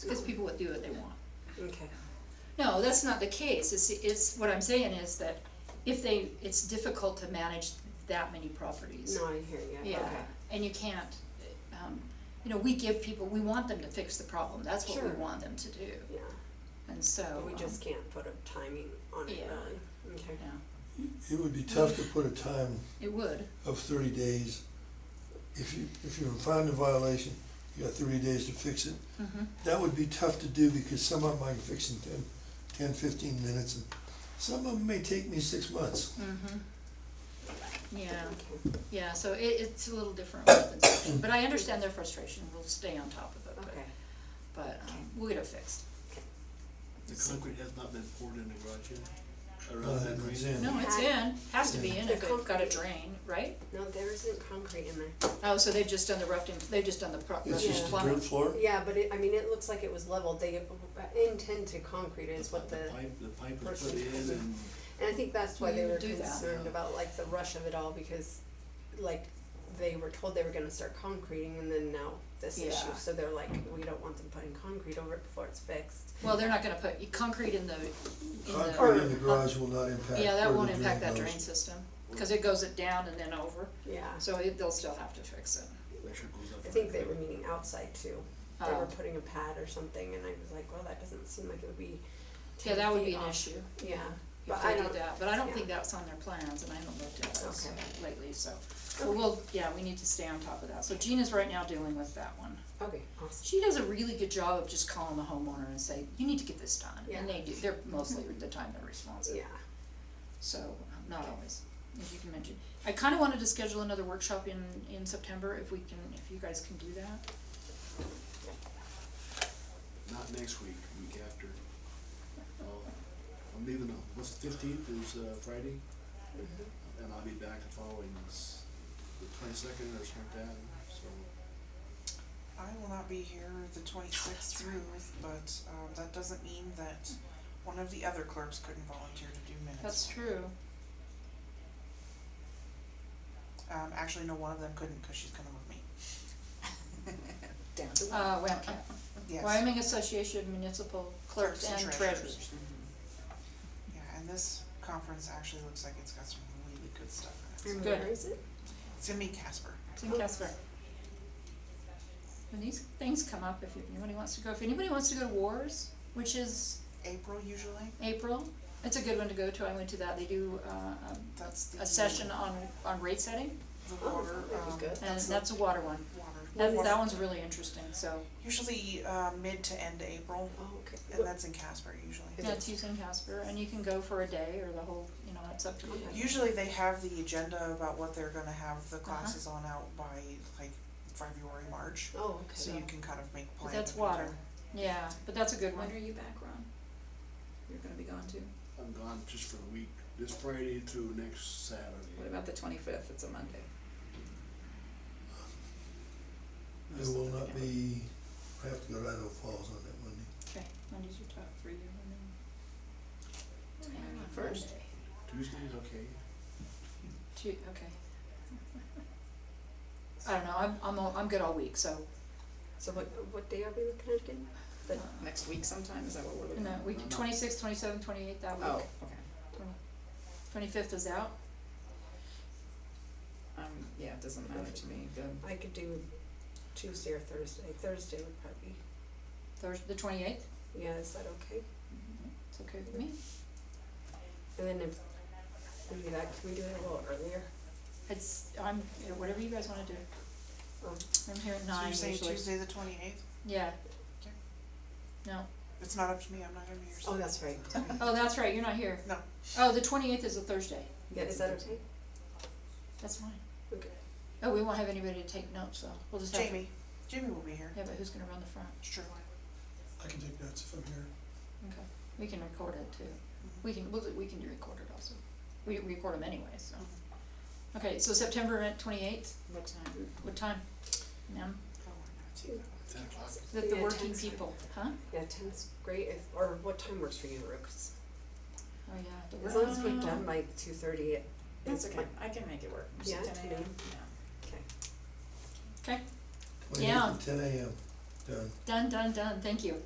because people would do what they want. Okay. No, that's not the case, it's, it's, what I'm saying is that if they, it's difficult to manage that many properties. No, I hear you. Yeah, Okay. and you can't, um, you know, we give people, we want them to fix the problem, that's what we Sure. want them to do, Yeah. and so. We um, just can't put a timing on it Yeah. really. Okay. Yeah, It would be tough to put a time um, it would, of thirty days. If you, if you're found in violation, you got thirty days to fix it. Mhm. That would be tough to do because some of them I can fix in 10, 10, 15 minutes and some of them may take me six months. mhm. Yeah, Okay. yeah, so it, it's a little different than section, but I understand their frustration, we'll stay on top of it, but, Okay. but, um, we'll get it fixed. The concrete has not been poured in the garage yet, Uh, around that it's green. in. No, it's in, has to be in The if it's got a concrete. drain, right? No, there isn't concrete in there. Oh, so they've just done the rough, they've just done the pro- It's rough just a plumbing? dirt floor. Yeah, but it, I mean, it looks like it was leveled. They intend to concrete is what the, pipe, the pipe was put person- in and and I think that's why they You were do that. concerned about like the rush of it all because, like, they were told they were gonna start concreting and then now this Yeah. issue. So they're like, we don't want them putting concrete over it before it's fixed. Well, they're not gonna put concrete in the, in the. Concrete in the garage will not impact Yeah, that where won't the impact that goes. drain system, cause it goes it down and then over, Yeah. so it, they'll still have to fix it. pressure goes up. I think they were meeting outside too. They Oh. were putting a pad or something, and I was like, well, that doesn't seem like it would be. Yeah, 10 that would feet be an off. issue Yeah, if but I they don't. did that, but I don't yeah. think that's on their plans and I haven't looked at those Okay. lately, so. But we'll, yeah, we need to stay on top of that, so Gina's right now dealing with that one. Okay, awesome. She does a really good job of just calling the homeowner and say, you need to get this done, and Yeah. they do, they're mostly the time they're responsive. Yeah, So, um, not always, as you can mention. I kinda wanted to schedule another workshop in, in September, if we can, if you guys can do that. Not next week, week after. I'll- I'm leaving, on- what's fifteenth is uh, Friday, Mm-hmm. and I'll be back the following, s- the twenty-second or something like that, so. I will not be here the twenty-sixth through, but, um, that doesn't mean that one of the other clerks couldn't volunteer to do minutes. That's true. Um, actually, no, one of them couldn't, cause she's coming with me. Damn. Uh, WAMCAP, Yes, Wyoming Association of Municipal Clerks and Treasurers. yeah, and this conference actually looks like it's got some really good stuff in it. and Good. where is it? It's gonna be Casper. It's in Casper. When these things come up, if anybody wants to go, if anybody wants to go to wars, which is April usually, April, it's a good one to go to, I went to that, they do, uh, um, that's the. a session on, on rate setting, The Oh, water, that'd be um, good. and that's the that's a water one. water. That, that one's really interesting, so, Usually, uh, mid to end April, Oh, okay. and that's in Casper usually. Is yeah, it- it's used in Casper, and you can go for a day or the whole, you know, it's up to you. Usually they have the agenda about what they're gonna have Uh-huh. the classes on out by like February, March, Oh, so okay. you can kind of make But plans. that's water, yeah, but that's a good one. When are you back, Ron? You're gonna be gone too? I'm gone just for a week, this Friday through next Saturday. What about the twenty-fifth, it's a Monday? I will not be, I have to go to Idaho Falls on that Monday. Okay, Monday's your top three, and then. First. Monday. Tuesday's okay, Two, okay. I don't know, I'm, I'm, all- I'm good all week, so, So what, what day are we looking at again? The- Next week sometime, is that what we're in looking that at? week, twenty-sixth, twenty-seventh, twenty-eighth, that Oh, week, okay, twenty-fifth is out. um, yeah, it doesn't matter to me, the, I could do Tuesday or Thursday. Thursday would probably, Thursday, the twenty-eighth, yeah, is that okay? Mm-hmm. it's okay with me. And then if, maybe that, can we do it a little earlier? It's, I'm, you know, whatever you guys wanna do. Um, I'm here at So nine you're usually. saying Tuesday the twenty eighth? Yeah. Okay. No, It's not up to me, I'm not gonna be here. so- Oh, that's right. oh, that's right, you're not here. No. Oh, the twenty-eighth is a Thursday, Yeah, is that okay? that's fine. Okay. Oh, we won't have anybody to take notes, though, we'll just have, yeah, Jamie, Jamie will be here, but who's gonna run the front? it's true. I can take notes if I'm here. Okay, we can record it too. Mm-hmm. We can, we'll, we can do record it also. We record them anyway, so. Mm-hmm. Okay, so September twenty-eighth, what time? what time? Ma'am, Oh, I'm not too bad. ten o'clock. the, the Yeah, working ten's good. people, huh? Yeah, ten's great if, or what time works for you, Rooks? Oh, yeah, the As long as we're working- done by two thirty, it, That's it's okay, I can make it work, Is it Yeah, 10 a.m.? okay. Okay, 28th Yeah. at Ten AM. done. Done, done, done, thank you.